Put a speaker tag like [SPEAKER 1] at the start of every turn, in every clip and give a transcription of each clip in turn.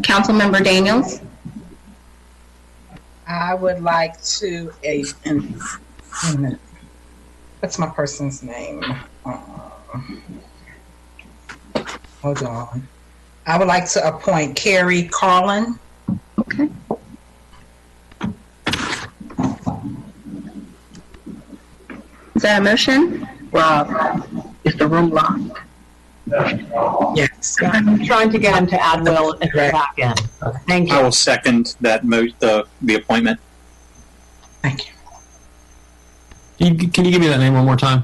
[SPEAKER 1] Councilmember Daniels?
[SPEAKER 2] I would like to, a, and- wait a minute. what's my person's name? Um, Hold on. I would like to appoint Carrie Carlin.
[SPEAKER 1] Okay. Is that a motion?
[SPEAKER 3] Rob, is the room locked?
[SPEAKER 2] Yes.
[SPEAKER 3] I'm trying to get him to add Will at the back end. Thank
[SPEAKER 4] I
[SPEAKER 3] you.
[SPEAKER 4] will second that mo- the, the appointment.
[SPEAKER 2] Thank you.
[SPEAKER 5] Can you, can you give me that name one more time?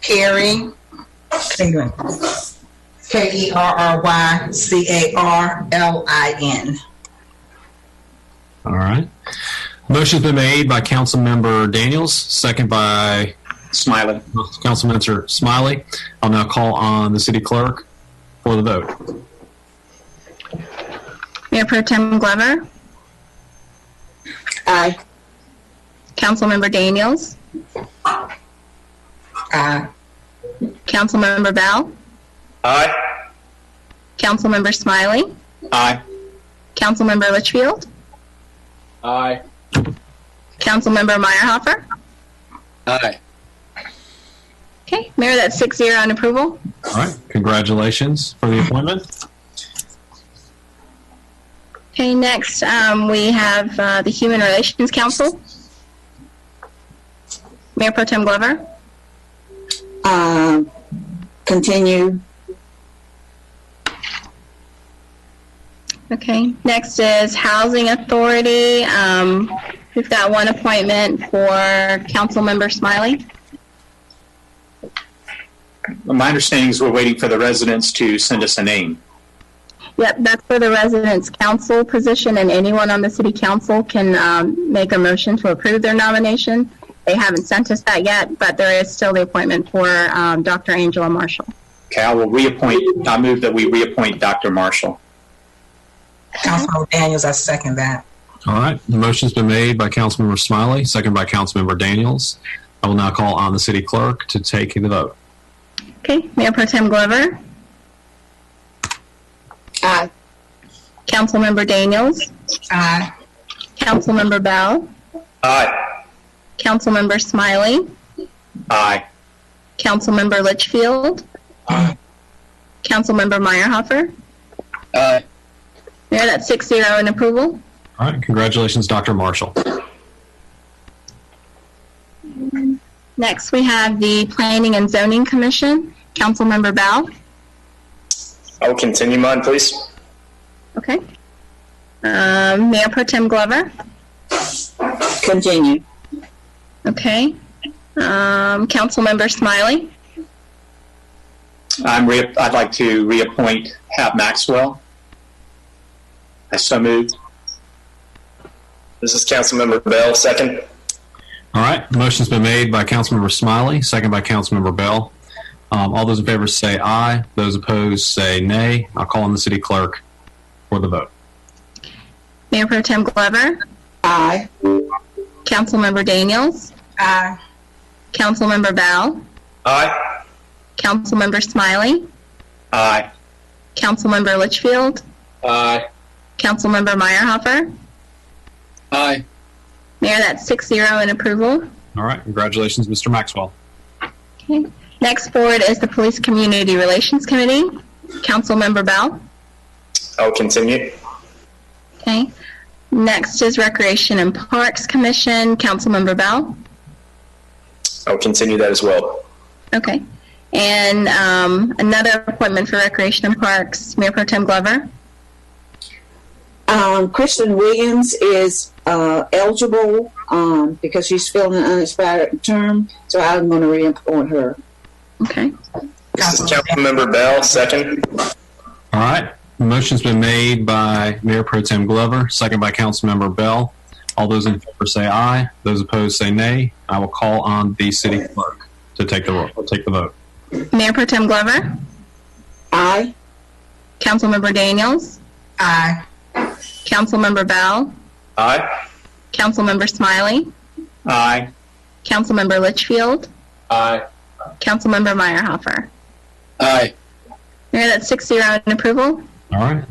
[SPEAKER 2] Carrie. K E R R Y C A R L I N.
[SPEAKER 5] All right. Motion's been made by Councilmember Daniels, second by
[SPEAKER 4] Smiling.
[SPEAKER 5] Councilmember Smiley. I'll now call on the city clerk for the vote.
[SPEAKER 1] Mayor Pro Tem Glover?
[SPEAKER 3] Aye.
[SPEAKER 1] Councilmember Daniels?
[SPEAKER 2] Aye.
[SPEAKER 1] Councilmember Bell?
[SPEAKER 4] Aye.
[SPEAKER 1] Councilmember Smiley?
[SPEAKER 4] Aye.
[SPEAKER 1] Councilmember Litchfield?
[SPEAKER 4] Aye.
[SPEAKER 1] Councilmember Meyerhopper?
[SPEAKER 4] Aye.
[SPEAKER 1] Okay, Mayor, that's six zero on approval.
[SPEAKER 5] All right. Congratulations for the appointment.
[SPEAKER 1] Okay, next, um, we have, uh, the Human Relations Council. Mayor Pro Tem Glover?
[SPEAKER 6] Um, continue.
[SPEAKER 1] Okay, next is Housing Authority. Um, we've got one appointment for Councilmember Smiley.
[SPEAKER 4] My understanding is we're waiting for the residents to send us a name.
[SPEAKER 1] Yep, that's for the residents' council position, and anyone on the city council can, um, make a motion to approve their nomination. They haven't sent us that yet, but there is still the appointment for, um, Dr. Angela Marshall.
[SPEAKER 4] Okay, I will reappoint, I move that we reappoint Dr. Marshall.
[SPEAKER 2] Councilmember Daniels, I second that.
[SPEAKER 5] All right. The motion's been made by Councilmember Smiley, second by Councilmember Daniels. I will now call on the city clerk to take the vote.
[SPEAKER 1] Okay, Mayor Pro Tem Glover,
[SPEAKER 6] Aye.
[SPEAKER 1] Councilmember Daniels,
[SPEAKER 2] Aye.
[SPEAKER 1] Councilmember Bell,
[SPEAKER 4] Aye.
[SPEAKER 1] Councilmember Smiley,
[SPEAKER 4] Aye.
[SPEAKER 1] Councilmember Litchfield,
[SPEAKER 7] Uh.
[SPEAKER 4] Aye.
[SPEAKER 1] Councilmember Meyerhopper.
[SPEAKER 4] Aye.
[SPEAKER 1] Mayor, that's six zero in approval.
[SPEAKER 5] All right. Congratulations, Dr. Marshall.
[SPEAKER 1] Next, we have the Planning and Zoning Commission, Councilmember Bell.
[SPEAKER 7] I will continue mine, please.
[SPEAKER 1] Okay. Um, Mayor Pro Tem Glover.
[SPEAKER 6] Continue.
[SPEAKER 1] Okay. Um, Councilmember Smiley.
[SPEAKER 4] I'm re- I'd like to reappoint Hap Maxwell. I so moved.
[SPEAKER 7] This is Councilmember Bell, second.
[SPEAKER 5] All right. The motion's been made by Councilmember Smiley, second by Councilmember Bell. Um, all those in favor say aye. Those opposed say nay. I'll call on the city clerk for the vote.
[SPEAKER 1] Mayor Pro Tem Glover.
[SPEAKER 6] Aye.
[SPEAKER 1] Councilmember Daniels.
[SPEAKER 2] Aye.
[SPEAKER 1] Councilmember Bell.
[SPEAKER 4] Aye.
[SPEAKER 1] Councilmember Smiley.
[SPEAKER 4] Aye.
[SPEAKER 1] Councilmember Litchfield.
[SPEAKER 4] Aye.
[SPEAKER 1] Councilmember Meyerhopper.
[SPEAKER 4] Aye.
[SPEAKER 1] Mayor, that's six zero in approval.
[SPEAKER 5] All right. Congratulations, Mr. Maxwell.
[SPEAKER 1] Next forward is the Police Community Relations Committee, Councilmember Bell.
[SPEAKER 7] I will continue.
[SPEAKER 1] Okay. Next is Recreation and Parks Commission, Councilmember Bell.
[SPEAKER 7] I will continue that as well.
[SPEAKER 1] Okay. And um, another appointment for Recreation and Parks, Mayor Pro Tem Glover.
[SPEAKER 6] Um, Kristen Williams is, uh, eligible, um, because she's filling an unexpired term, so I'm gonna reappoint her.
[SPEAKER 1] Okay.
[SPEAKER 7] This is Councilmember Bell, second.
[SPEAKER 5] All right. The motion's been made by Mayor Pro Tem Glover, second by Councilmember Bell. All those in favor say aye. Those opposed say nay. I will call on the city clerk to take the ro- take the vote.
[SPEAKER 1] Mayor Pro Tem Glover,
[SPEAKER 6] Aye.
[SPEAKER 1] Councilmember Daniels,
[SPEAKER 2] Aye.
[SPEAKER 1] Councilmember Bell,
[SPEAKER 4] Aye.
[SPEAKER 1] Councilmember Smiley,
[SPEAKER 4] Aye.
[SPEAKER 1] Councilmember Litchfield,
[SPEAKER 4] Aye.
[SPEAKER 1] Councilmember Meyerhopper.
[SPEAKER 4] Aye.
[SPEAKER 1] Mayor, that's six zero in approval.
[SPEAKER 5] All right.